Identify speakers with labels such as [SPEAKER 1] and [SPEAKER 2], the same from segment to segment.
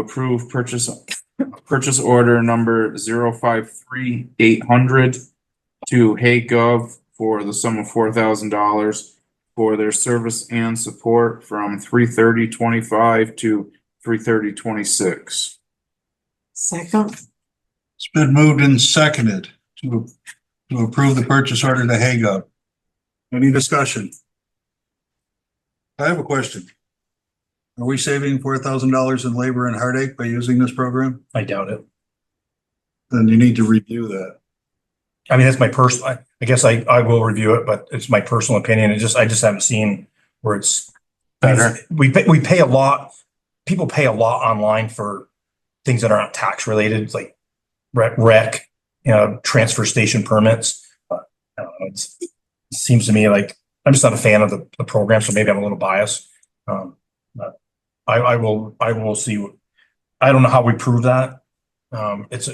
[SPEAKER 1] approve purchase, purchase order number zero five three eight hundred to HayGov for the sum of four thousand dollars for their service and support from three thirty twenty-five to three thirty twenty-six.
[SPEAKER 2] Second,
[SPEAKER 3] It's been moved and seconded to, to approve the purchase order to Hago. Any discussion? I have a question. Are we saving four thousand dollars in labor and heartache by using this program?
[SPEAKER 4] I doubt it.
[SPEAKER 3] Then you need to review that.
[SPEAKER 4] I mean, that's my personal, I, I guess I, I will review it, but it's my personal opinion. It just, I just haven't seen where it's.
[SPEAKER 1] Better.
[SPEAKER 4] We, pay- we pay a lot, people pay a lot online for things that aren't tax related, like rec, rec, you know, transfer station permits. But I don't know, it's, it seems to me like, I'm just not a fan of the, the program, so maybe I'm a little biased. Um, but I, I will, I will see. what- I don't know how we prove that. Um, it's,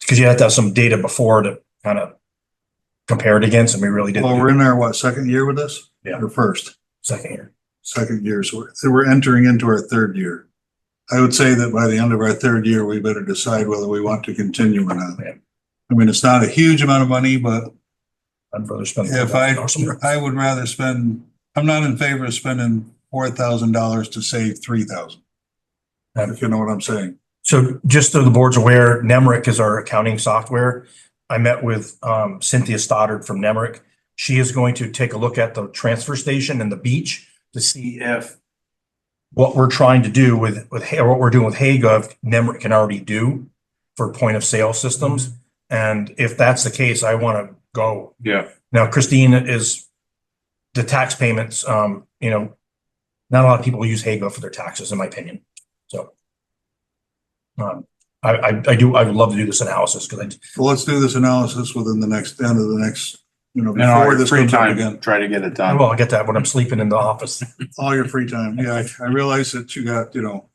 [SPEAKER 4] because you have to have some data before to kind of compare it against, and we really didn't.
[SPEAKER 3] Well, we're in our, what, second year with this?
[SPEAKER 4] Yeah.
[SPEAKER 3] Or first,
[SPEAKER 4] Second year.
[SPEAKER 3] second year, so we're- so we're entering into our third year. I would say that by the end of our third year, we better decide whether we want to continue or not.
[SPEAKER 4] Yeah.
[SPEAKER 3] I mean, it's not a huge amount of money, but
[SPEAKER 4] I'd rather spend.
[SPEAKER 3] If I, I would rather spend, I'm not in favor of spending four thousand dollars to save three thousand. If you know what I'm saying.
[SPEAKER 4] So just so the board's aware, Nemrick is our accounting software. I met with um, Cynthia Stoddard from Nemrick. She is going to take a look at the transfer station and the beach to see if what we're trying to do with, with, Ha- what we're doing with Hagov, Nemrick can already do for point of sale systems. And if that's the case, I want to go
[SPEAKER 1] Yeah.
[SPEAKER 4] Now Christine is the tax payments, um, you know, not a lot of people use Hago for their taxes, in my opinion. So. Um, I, I, I do, I would love to do this analysis because
[SPEAKER 3] So let's do this analysis within the next, end of the next, you know,
[SPEAKER 1] And all
[SPEAKER 3] before
[SPEAKER 1] your
[SPEAKER 3] this
[SPEAKER 1] free
[SPEAKER 3] comes up
[SPEAKER 1] time,
[SPEAKER 3] again.
[SPEAKER 1] try to get it
[SPEAKER 4] I,
[SPEAKER 1] done.
[SPEAKER 4] well, I oh, get that when I'm sleeping in the office.
[SPEAKER 3] All your free time. Yeah, I, I realize that you got, you know,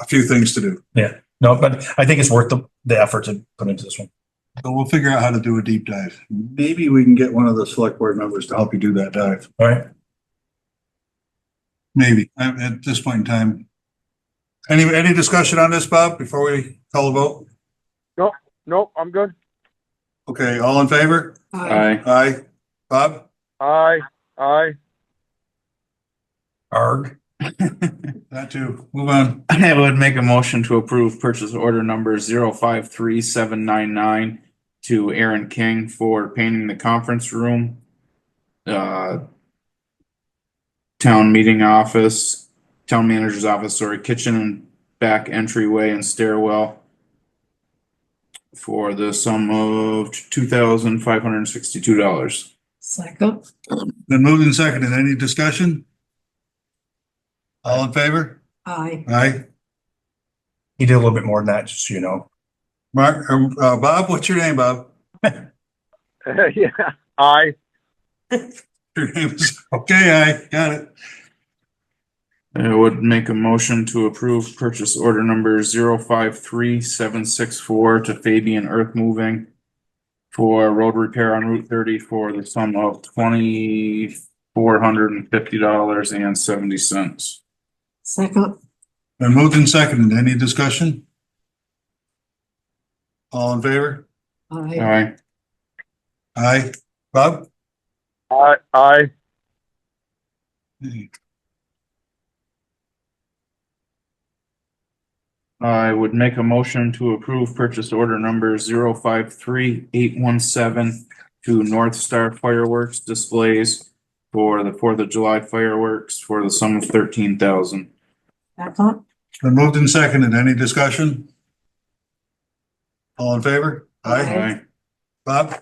[SPEAKER 3] a few things to do.
[SPEAKER 4] No, but I think it's worth the, the effort to put into this one.
[SPEAKER 3] So we'll figure out how to do a deep dive. Maybe we can get one of the select board members to help you do that dive.
[SPEAKER 4] All right.
[SPEAKER 3] Maybe, at, at this point in time. Any, any discussion on this, Bob, before we call a vote?
[SPEAKER 5] Nope, I'm good.
[SPEAKER 3] Okay, all in favor?
[SPEAKER 2] aye,
[SPEAKER 1] Aye.
[SPEAKER 3] Aye. Bob?
[SPEAKER 5] Aye, aye.
[SPEAKER 4] Arg,
[SPEAKER 3] That too. Move on.
[SPEAKER 1] I would make a motion to approve purchase order number zero five three seven nine nine to Aaron King for painting the conference room, uh, town meeting office, town manager's office, sorry, kitchen and back entryway and stairwell for the sum of two thousand five hundred and sixty-two dollars.
[SPEAKER 2] second,
[SPEAKER 3] Then moved and seconded. Any discussion? All in favor?
[SPEAKER 2] aye,
[SPEAKER 3] Aye.
[SPEAKER 4] he did a little bit more than that, just so you know.
[SPEAKER 3] Mark, or, uh, Bob, what's your name, Bob?
[SPEAKER 5] yeah, aye.
[SPEAKER 3] Your name is, okay, aye, got it.
[SPEAKER 1] I would make a motion to approve purchase order number zero five three seven six four to Fabian Earth Moving for road repair on Route thirty for the sum of twenty four hundred and fifty dollars and seventy cents.
[SPEAKER 2] second,
[SPEAKER 3] Then moved and seconded. Any discussion? All in favor?
[SPEAKER 2] aye,
[SPEAKER 1] Aye.
[SPEAKER 3] Aye. Bob?
[SPEAKER 5] Aye, aye.
[SPEAKER 1] I would make a motion to approve purchase order number zero five three eight one seven to North Star Fireworks Displays for the Fourth of July fireworks for the sum of thirteen thousand.
[SPEAKER 2] second,
[SPEAKER 3] Then moved and seconded. Any discussion? All in favor? Aye.
[SPEAKER 1] Aye.
[SPEAKER 3] Bob,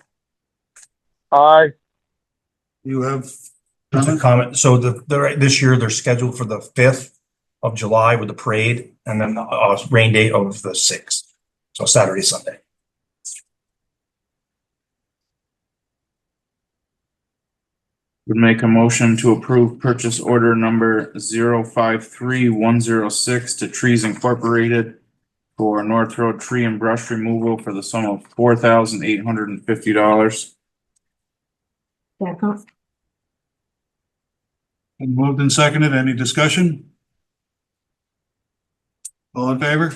[SPEAKER 5] Aye.
[SPEAKER 3] you have?
[SPEAKER 4] Just a comment. So the, the, this year they're scheduled for the fifth of July with the parade and then the uh, rain date of the sixth. So Saturday, Sunday.
[SPEAKER 1] Would make a motion to approve purchase order number zero five three one zero six to Trees Incorporated for North Road Tree and Brush Removal for the sum of four thousand eight hundred and fifty dollars.
[SPEAKER 2] second,
[SPEAKER 3] Been Moved and seconded. Any discussion? All in favor?